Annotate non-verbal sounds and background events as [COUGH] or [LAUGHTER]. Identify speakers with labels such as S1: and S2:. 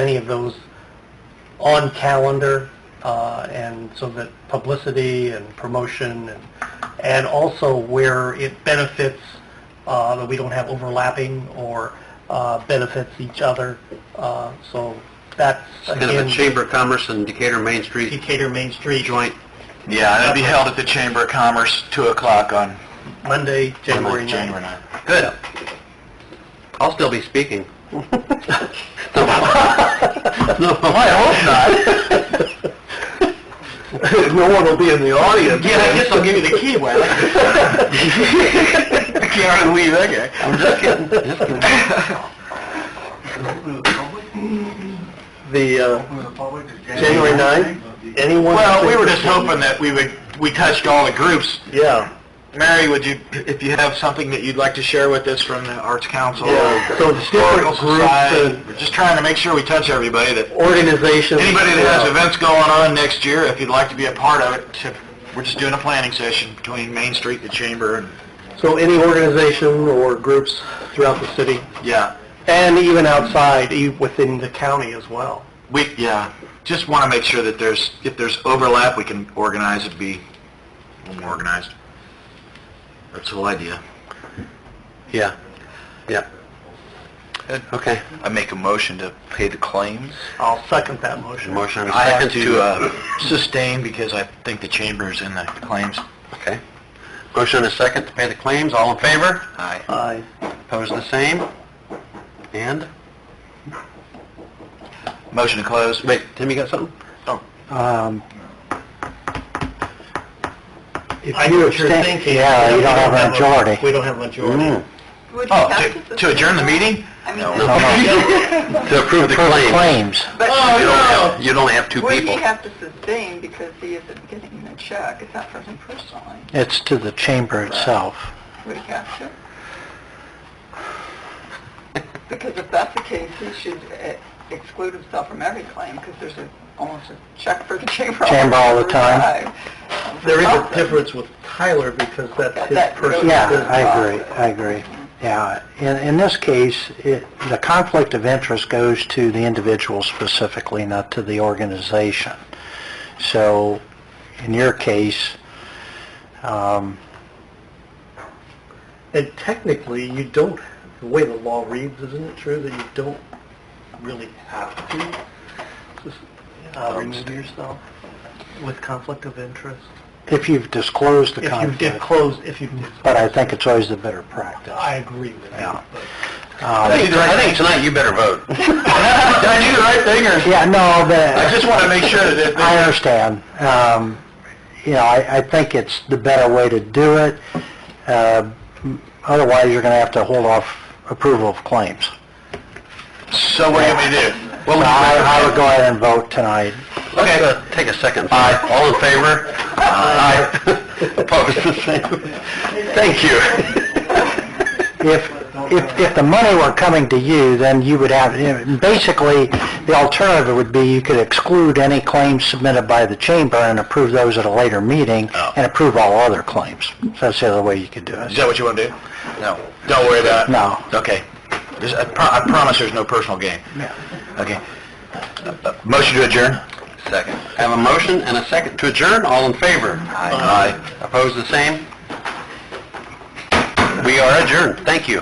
S1: any of those on calendar, uh, and so that publicity and promotion, and and also where it benefits, uh, that we don't have overlapping or uh, benefits each other. Uh, So that's,
S2: Kind of a
S1: again,
S2: Chamber of Commerce and Decatur Main Street
S1: Decatur Main Street,
S2: joint.
S3: Yeah, and it'll be held at the Chamber of Commerce, 2 o'clock on
S1: Monday, January
S3: January
S1: 9th.
S3: 9th.
S2: Good. I'll still be speaking. No,
S3: Oh, I hope not.
S2: No one will be in the audience. Yeah, I guess I'll give you the key, Wes.
S3: Can't really leave that guy.
S2: I'm just kidding, just kidding.
S1: The, uh, January 9th, anyone?
S3: Well, we were just hoping that we would, we touched all the groups.
S1: Yeah.
S3: Mary, would you, if you have something that you'd like to share with us from the Arts Council? or
S1: Yeah, so it's
S3: Historical
S1: different
S3: Society,
S1: groups
S3: we're just trying to make sure we touch everybody that,
S1: and organizations.
S3: anybody that
S1: Yeah.
S3: has events going on next year, if you'd like to be a part of it, to- we're just doing a planning session between Main Street, the Chamber, and,
S1: So any organization or groups throughout the city,
S3: yeah.
S1: and even outside, e- within the county as well.
S3: We, yeah, just want to make sure that there's, if there's overlap, we can organize it, be a little more organized. That's the whole idea.
S2: Yeah, yeah. Okay,
S3: I make a motion to pay the claims.
S1: I'll second that motion.
S2: motion and a
S3: I have
S2: second to...
S3: to uh, sustain because I think the chamber is in the claims.
S2: uh, Okay. Motion and a second to pay the claims, all in favor?
S3: Aye.
S1: Aye.
S2: Opposed, the same? And?
S3: Motion to close.
S2: Wait, Tim, you got something?
S3: Oh.
S4: Um, If
S1: I know
S4: you
S1: what you're
S4: abstain,
S1: thinking.
S4: yeah, you don't have a majority.
S1: We don't have a majority.
S5: Would you
S3: Oh,
S5: have
S3: to-
S5: to...
S3: to adjourn the meeting?
S5: I mean,
S3: No.
S5: no,
S2: To approve the claim.
S4: Claims.
S2: You'd
S5: but
S2: only have- You'd only have two
S5: would he
S2: people.
S5: have to sustain because he isn't getting the check? It's not for him personally.
S4: It's to the chamber itself.
S5: Would he have to? Because if that's the case, he should eh, exclude himself from every claim because there's a, almost a check for the [LAUGHS] chamber.
S4: Chamber all the
S5: every
S4: time.
S1: There is a
S5: Something.
S1: difference with Tyler because that's his
S5: That-
S1: personal
S4: Yeah,
S1: business.
S4: I agree, I agree. Yeah, in, in this case, it, the conflict of interest goes to the individual specifically, not to the organization. So, in your case, um,
S1: And technically, you don't, the way the law reads, isn't it true that you don't really have to just,
S4: Um,
S1: uh, remove yourself with conflict of interest?
S4: if you've disclosed the
S1: If you
S4: conflict.
S1: did close, if you did,
S4: But I think it's always the better practice.
S1: I agree with that.
S4: Yeah.
S1: but-
S2: I think, I think tonight you better
S3: [LAUGHS]
S2: vote. Did I do the right thing, or?
S4: [LAUGHS] Yeah, no, the...
S2: I just want to make sure that...
S4: I understand. Um, You know, I, I think it's the better way to do it. Uh, m- Otherwise, you're going to have to hold off approval of claims.
S3: So what do you want me to do?
S4: So I I would go ahead and vote tonight.
S2: Let's uh, take a second. Aye. All in favor? Aye.
S3: [LAUGHS]
S2: [LAUGHS] Opposed, the same. Thank you.
S4: If, if, if the money were coming to you, then you would have, you know, basically, the alternative would be you could exclude any claims submitted by the chamber and approve those at a later meeting
S3: Oh.
S4: and approve all other claims. So that's the other way you could do
S3: Is
S4: it.
S3: that what you want to do? No. Don't worry about it.
S4: No.
S3: Okay. There's- I pro- I promise there's no personal gain.
S4: Yeah.
S3: Okay. Uh, uh, Motion to adjourn?
S2: Second. Have a motion and a second to adjourn, all in favor?
S3: Aye.
S2: Opposed, the same? We are adjourned, thank you.